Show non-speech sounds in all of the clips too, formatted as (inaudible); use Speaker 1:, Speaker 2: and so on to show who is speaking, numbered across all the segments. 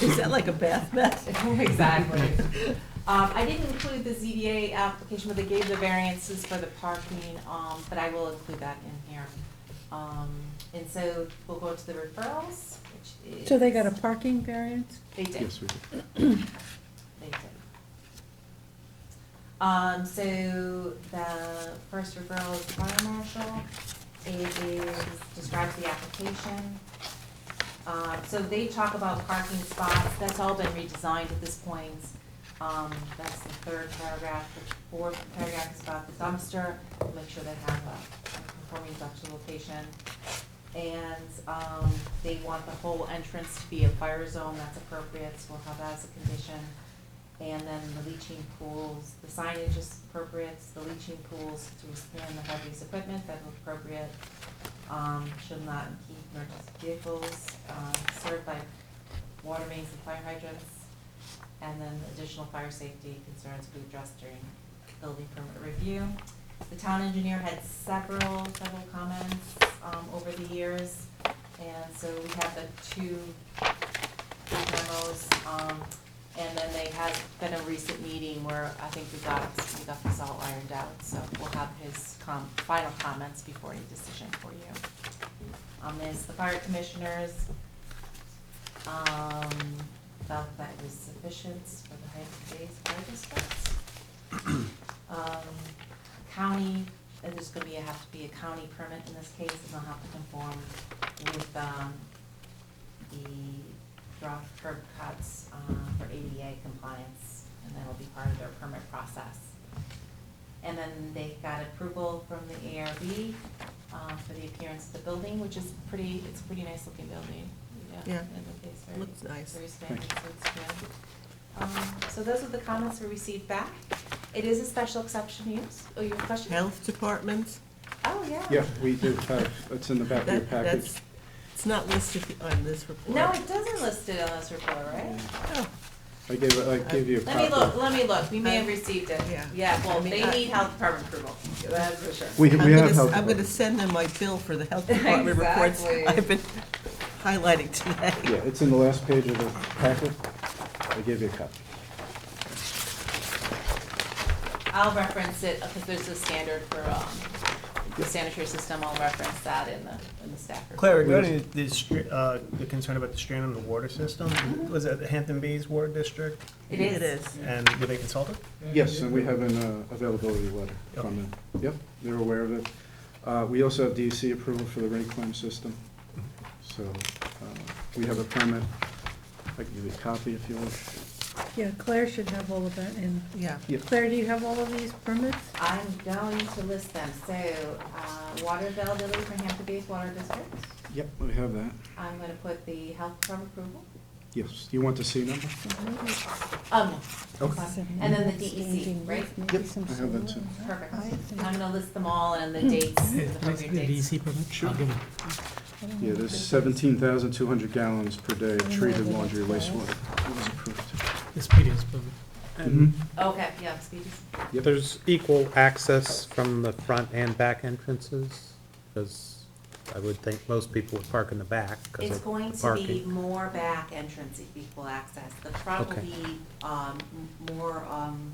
Speaker 1: Is that like a bath mat?
Speaker 2: (laughs) Exactly. Um, I didn't include the ZBA application, but they gave the variances for the parking, um, but I will include that in here. Um, and so we'll go to the referrals, which is.
Speaker 3: So they got a parking variance?
Speaker 2: They did,
Speaker 4: Yes, we do.
Speaker 2: they did. Um, so the first referral is the fire marshal. It is, describes the application. Uh, so they talk about parking spots, that's all been redesigned at this point. Um, that's the third paragraph, the fourth paragraph is about the dumpster, make sure they have a conforming dumpster location. And, um, they want the whole entrance to be a fire zone, that's appropriate, so we'll have that as a condition. And then the leaching pools, the signage is appropriate, the leaching pools to expand the heavy use equipment, that's appropriate um, should not keep emergency vehicles, um, served by water mains and fire hydrants. And then additional fire safety concerns will be addressed during building permit review. The town engineer had several, several comments, um, over the years. And so we have the two memos, um, and then they had been a recent meeting where I think we got, we got this all ironed out. So we'll have his com, final comments before any decision for you. Um, there's the fire commissioners. Um, felt that was sufficient for the height of today's fire districts. Um, county, and there's gonna be, a- have to be a county permit in this case, and they'll have to conform with, um, the rock curb cuts, um, for ADA compliance, and that'll be part of their permit process. And then they got approval from the ARB uh, for the appearance of the building, which is pretty, it's a pretty nice looking building.
Speaker 1: Yeah.
Speaker 2: And it's very-
Speaker 1: Looks nice.
Speaker 2: Very standard, so it's good. Um, So those are the comments we received back. It is a special exception use. Oh, you have a question?
Speaker 1: Health department?
Speaker 2: Oh, yeah.
Speaker 4: Yeah, we do have, it's in the back of your
Speaker 1: That-
Speaker 4: package.
Speaker 1: that's- It's not listed on this report.
Speaker 2: No, it doesn't list it on this report, right?
Speaker 1: Oh,
Speaker 4: I gave, it- I gave you a
Speaker 2: Let me look,
Speaker 4: copy.
Speaker 2: let me look. We may have received it.
Speaker 1: Uh, Yeah.
Speaker 2: Yeah, well,
Speaker 1: I mean, uh,
Speaker 2: they
Speaker 1: I-
Speaker 2: need health department approval. That's for sure.
Speaker 4: We,
Speaker 1: I'm
Speaker 4: we
Speaker 1: gonna
Speaker 4: have
Speaker 1: s-
Speaker 4: help.
Speaker 1: I'm gonna send them my bill for the health
Speaker 2: (laughs)
Speaker 1: department reports
Speaker 2: Exactly.
Speaker 1: I've been highlighting today.
Speaker 4: Yeah, it's in the last page of the packet. I gave you a copy.
Speaker 2: I'll reference it because there's a standard for um, the
Speaker 4: Yep.
Speaker 2: sanitary system. I'll reference that in the, in the staff report.
Speaker 5: Claire, regarding the, str- uh, the concern about the strain on the water system, was that the Hampton Bays Water District?
Speaker 2: It is.
Speaker 1: It is.
Speaker 5: And were they consulted?
Speaker 4: Yes, and we have an uh, availability letter from them. Yep, they're aware of it. Uh, We also have DEC approval for the reclaim system. So uh, we have a permit. I can give you a copy if you want.
Speaker 3: Yeah, Claire should have all of that in.
Speaker 1: Yeah.
Speaker 4: Yeah.
Speaker 3: Claire, do you have all of these permits?
Speaker 2: I'm going to list them. So, uh, water availability for Hampton Bays Water District.
Speaker 4: Yep, we have that.
Speaker 2: I'm gonna put the health department approval.
Speaker 4: Yes, you want the C number?
Speaker 2: Um,
Speaker 4: Okay.
Speaker 2: and then the DEC, right?
Speaker 4: Yep, I have that too.
Speaker 2: Perfect. I'm gonna list them all and the
Speaker 4: Hmm.
Speaker 2: dates, the appropriate dates.
Speaker 4: Yeah, there's 17,200 gallons per day of treated laundry wastewater. It was approved.
Speaker 6: This meeting's moving.
Speaker 4: Mhm.
Speaker 2: Okay, yeah, E speedy.
Speaker 4: Yep.
Speaker 7: There's equal access from the front and back entrances, because I would think most people would park in the back because
Speaker 2: It's
Speaker 7: of the parking.
Speaker 2: going to be more back entrance if equal access. The front will
Speaker 7: Okay.
Speaker 2: be, um, m- more, um,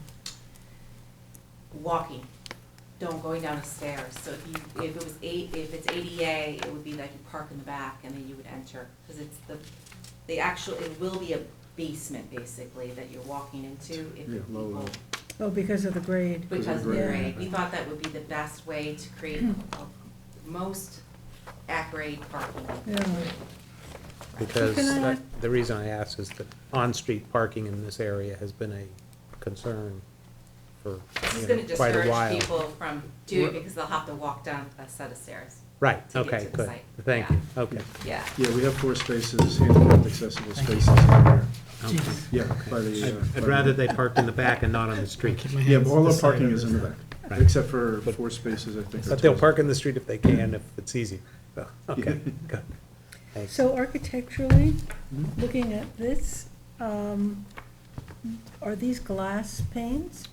Speaker 2: walking, don't going down the stairs. So if you, if it was eight, if it's ADA, it would be like you park in the back and then you would enter. Cause it's the, the actual, it will be a basement basically that you're walking into if
Speaker 4: Yeah, low
Speaker 2: people
Speaker 4: level.
Speaker 3: Oh, because of the grade.
Speaker 2: because
Speaker 4: Right.
Speaker 2: we're a, we thought that would be the best way to create a- most accurate parking.
Speaker 3: Yeah.
Speaker 7: Because
Speaker 3: Can I-
Speaker 7: that- the reason I ask is that on-street parking in this area has been a concern for,
Speaker 2: This is
Speaker 7: you
Speaker 2: gonna
Speaker 7: know, quite a
Speaker 2: discourage
Speaker 7: while.
Speaker 2: people from doing, it because they'll have to walk down a set of stairs.
Speaker 7: Right,
Speaker 2: to get
Speaker 7: okay,
Speaker 2: to the
Speaker 7: good,
Speaker 2: site.
Speaker 7: thank
Speaker 2: Yeah.
Speaker 7: you, okay.
Speaker 2: Yeah.
Speaker 4: Yeah, we have four spaces, handicapped accessible spaces in there.
Speaker 7: okay.
Speaker 4: Yeah, by the. uh, by
Speaker 7: I'd
Speaker 4: the-
Speaker 7: rather they parked in the back and not on the street.
Speaker 4: Yeah, all our parking is in the back,
Speaker 7: Right.
Speaker 4: except for four spaces, I think. are
Speaker 7: But they'll
Speaker 4: towards-
Speaker 7: park in the street if they can, if it's easier. So, Okay,
Speaker 4: Yeah.
Speaker 7: good. Thanks.
Speaker 3: So architecturally,
Speaker 4: Mhm.
Speaker 3: looking at this, um, are these glass panes?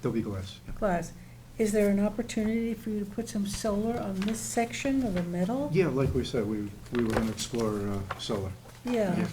Speaker 4: There'll be glass. yeah.
Speaker 3: Glass. Is there an opportunity for you to put some solar on this section of the metal?
Speaker 4: Yeah, like we said, we, we were going to explore uh, solar.
Speaker 8: yeah.
Speaker 3: Yeah.